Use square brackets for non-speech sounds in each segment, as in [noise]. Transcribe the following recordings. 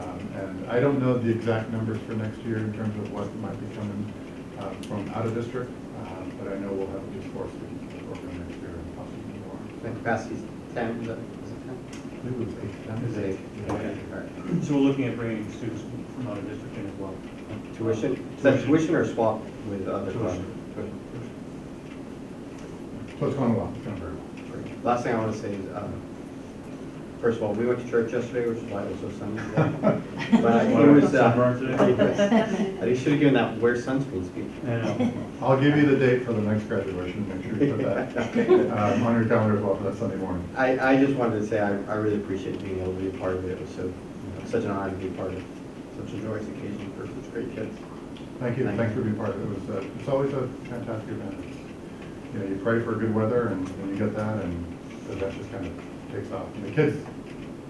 Um, And I don't know the exact numbers for next year in terms of what might be coming uh, from out of district, uh, but I know we'll have at least four students program next year and possibly more. The capacity's ten, is it- is it ten? I believe It was eight, that Is was it eight. eight? Okay, all right. So we're looking at bringing students from out of district in as well. Tuition, is that tuition or swap with other funds? So it's going well, it's going very well. Tuition. Last thing I want to say is, um, first of all, we went to church yesterday, which is why it was so sunny. But it was, uh, [laughs] I think you should have given that wear sunscreen speech. I know. I'll give you the date for the next graduation, make sure you put that [laughs] um, on your calendar as well for that Sunday morning. I, I just wanted to say, I, I really appreciate being able to be a part of it. It was so, you know, such an honor to be a part of such a joyous occasion for such great kids. Thank you, and thanks for being part of it. It was, uh, it's always a fantastic event. You know, you pray for good weather and and you get that and the event just kind of takes off. And the kids,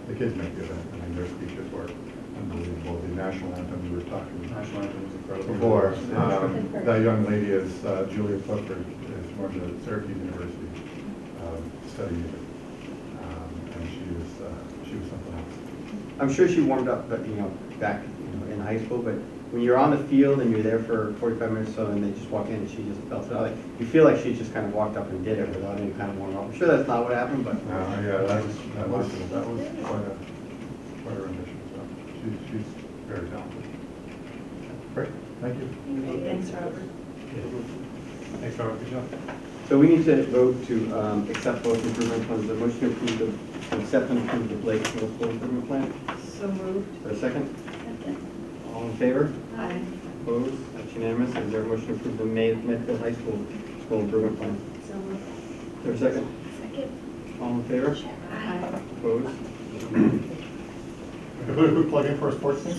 the kids make the event. I mean, their speeches were unbelievable. The national anthem we were talking [laughs] National anthem was incredible. before, um, that young lady is uh, Julia Clifford, is from the Syracuse University, um, studying music. Um, And she was, uh, she was something else. I'm sure she warmed up, but, you know, back you know, in high school, but when you're on the field and you're there for 45 minutes or so and they just walk in and she just belts it out, like, you feel like she just kind of walked up and did it without any kind of warm up. I'm sure that's not what happened, but Uh, yeah, that was, that was, that was quite a, quite a rendition, so she's, she's very talented. Great, thank you. Thanks, Robert. Thanks, Robert, good job. So we need to vote to um, accept both improvement plans. The motion to approve the, to accept and approve the Blake Middle School improvement plan. So moved. Is there a second? All in favor? Aye. Opposed? That's unanimous. Is there a motion to approve the May Medfield High School School improvement plan? So moved. Is there a second? Second. All in favor? Aye. Opposed? Could we plug in for a sports team?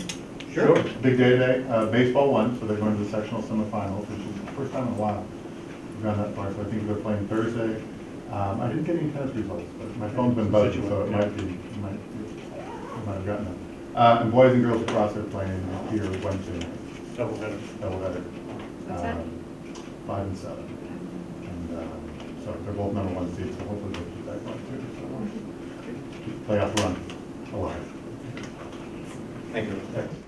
Big day today, uh, baseball won, so they're going to the sectional semifinals, which is the first time in a while we've gone that far, so I think they're playing Thursday. Um, I didn't get any tennis results, but my phone's been buzzing, so it might be, it might, it might have gotten them. Uh, and boys and girls across are playing here Wednesday night. Double header. doubleheader. What's that? um, Five and seven. And um, so they're both number one seeds, so hopefully they'll keep that going too. So we'll keep the Playoff run alive. Thank you. Thanks.